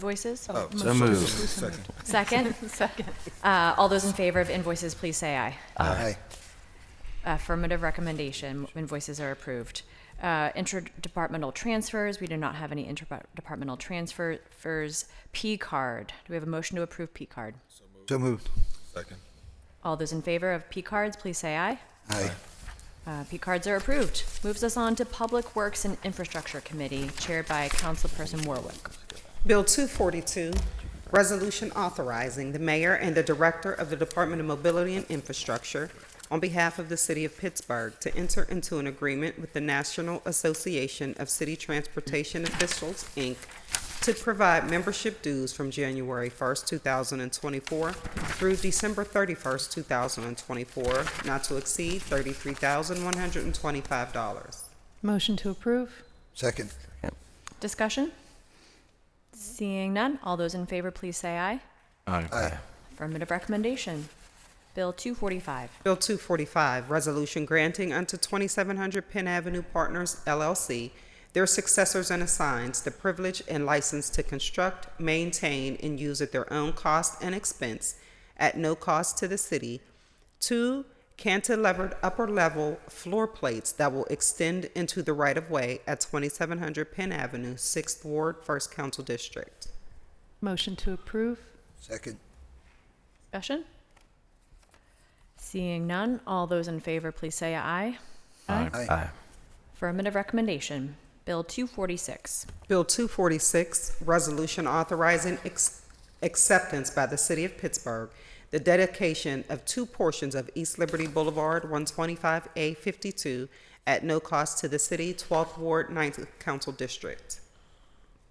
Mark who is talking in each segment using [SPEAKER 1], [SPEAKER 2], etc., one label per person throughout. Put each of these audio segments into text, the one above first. [SPEAKER 1] invoices?
[SPEAKER 2] So moved.
[SPEAKER 1] Second? Second. Uh, all those in favor of invoices, please say aye.
[SPEAKER 2] Aye.
[SPEAKER 1] Affirmative recommendation, invoices are approved. Uh, interdepartmental transfers, we do not have any interdepartmental transfers. P card, do we have a motion to approve P card?
[SPEAKER 2] So moved.
[SPEAKER 3] Second.
[SPEAKER 1] All those in favor of P cards, please say aye.
[SPEAKER 2] Aye.
[SPEAKER 1] Uh, P cards are approved. Moves us on to Public Works and Infrastructure Committee, chaired by Councilperson Warwick.
[SPEAKER 4] Bill 242, resolution authorizing the mayor and the director of the Department of Mobility and Infrastructure on behalf of the city of Pittsburgh to enter into an agreement with the National Association of City Transportation Officials, Inc., to provide membership dues from January 1st, 2024 through December 31st, 2024, not to exceed $33,125.
[SPEAKER 5] Motion to approve?
[SPEAKER 2] Second.
[SPEAKER 1] Discussion? Seeing none, all those in favor, please say aye.
[SPEAKER 2] Aye.
[SPEAKER 1] Affirmative recommendation. Bill 245.
[SPEAKER 4] Bill 245, resolution granting unto 2700 Penn Avenue Partners LLC, their successors and assigns, the privilege and license to construct, maintain, and use at their own cost and expense, at no cost to the city, two cantilevered upper-level floor plates that will extend into the right-of-way at 2700 Penn Avenue, 6th Ward, 1st Council District.
[SPEAKER 5] Motion to approve?
[SPEAKER 2] Second.
[SPEAKER 1] Discussion? Seeing none, all those in favor, please say aye.
[SPEAKER 2] Aye.
[SPEAKER 1] Affirmative recommendation. Bill 246.
[SPEAKER 4] Bill 246, resolution authorizing ex- acceptance by the City of Pittsburgh, the dedication of two portions of East Liberty Boulevard, 125A52, at no cost to the city, 12th Ward, 9th Council District.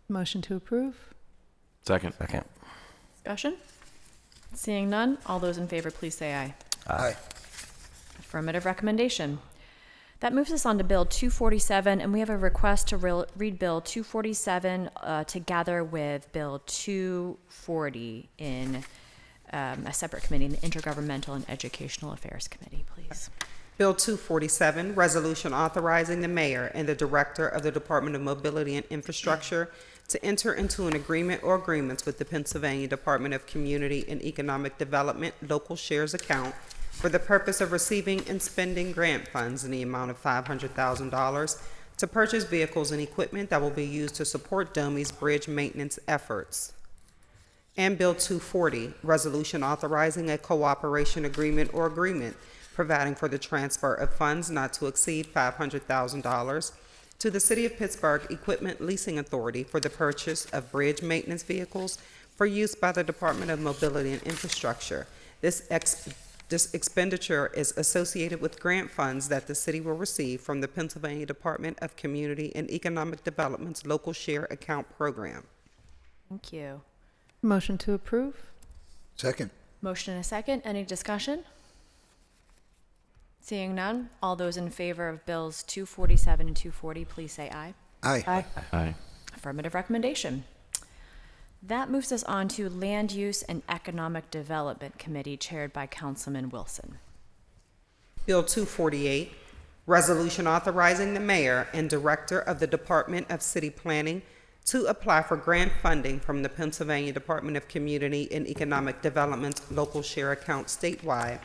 [SPEAKER 5] Motion to approve?
[SPEAKER 6] Second. Second.
[SPEAKER 1] Discussion? Seeing none, all those in favor, please say aye.
[SPEAKER 2] Aye.
[SPEAKER 1] Affirmative recommendation. That moves us on to Bill 247, and we have a request to rel- read Bill 247 uh, together with Bill 240 in um, a separate committee, the Intergovernmental and Educational Affairs Committee, please.
[SPEAKER 4] Bill 247, resolution authorizing the mayor and the director of the Department of Mobility and Infrastructure to enter into an agreement or agreements with the Pennsylvania Department of Community and Economic Development Local Shares Account for the purpose of receiving and spending grant funds in the amount of $500,000 to purchase vehicles and equipment that will be used to support Domi's bridge maintenance efforts. And Bill 240, Resolution Authorizing a Cooperation Agreement or Agreement Providing for the Transfer of Funds Not to Exceed $500,000 to the City of Pittsburgh Equipment Leasing Authority for the purchase of bridge maintenance vehicles for use by the Department of Mobility and Infrastructure. This ex- this expenditure is associated with grant funds that the city will receive from the Pennsylvania Department of Community and Economic Development's Local Share Account Program.
[SPEAKER 1] Thank you.
[SPEAKER 5] Motion to approve?
[SPEAKER 2] Second.
[SPEAKER 1] Motion and a second. Any discussion? Seeing none, all those in favor of Bills 247 and 240, please say aye.
[SPEAKER 2] Aye.
[SPEAKER 6] Aye.
[SPEAKER 1] Affirmative recommendation. That moves us on to Land Use and Economic Development Committee chaired by Councilman Wilson.
[SPEAKER 4] Bill 248, resolution authorizing the mayor and director of the Department of City Planning to apply for grant funding from the Pennsylvania Department of Community and Economic Development's local share account statewide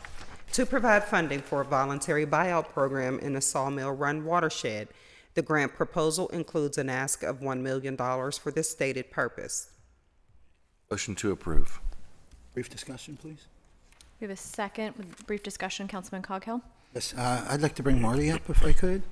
[SPEAKER 4] to provide funding for a voluntary buyout program in the Sawmill Run watershed. The grant proposal includes an ask of $1 million for this stated purpose.
[SPEAKER 6] Motion to approve.
[SPEAKER 2] Brief discussion, please.
[SPEAKER 1] We have a second with brief discussion, Councilman Coghill.
[SPEAKER 2] Yes, uh, I'd like to bring Marty up if I could.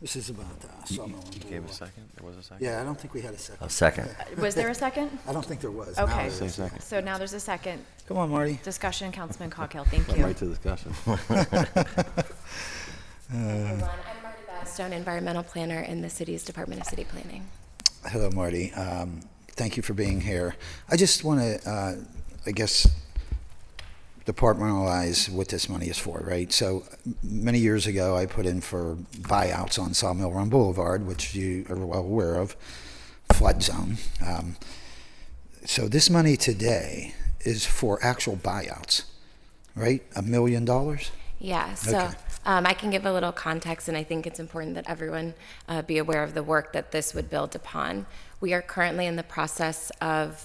[SPEAKER 2] This is about uh, Sawmill. You gave a second? There was a second? Yeah, I don't think we had a second.
[SPEAKER 7] A second.
[SPEAKER 1] Was there a second?
[SPEAKER 2] I don't think there was. Now
[SPEAKER 1] Okay.
[SPEAKER 2] there is.
[SPEAKER 1] So now there's a second
[SPEAKER 2] Come on, Marty.
[SPEAKER 1] discussion, Councilman Coghill. Thank you.
[SPEAKER 6] to discussion.
[SPEAKER 8] Everyone, I'm Marty Battistone, environmental planner in the city's Department of City Planning.
[SPEAKER 2] Hello, Marty. Um, Thank you for being here. I just want to, uh, I guess, departmentalize what this money is for, right? So m- many years ago, I put in for buyouts on Sawmill Run Boulevard, which you are well aware of, flood zone. Um, So this money today is for actual buyouts, right? A million dollars?
[SPEAKER 8] Yeah, so
[SPEAKER 2] Okay.
[SPEAKER 8] um, I can give a little context, and I think it's important that everyone uh, be aware of the work that this would build upon. We are currently in the process of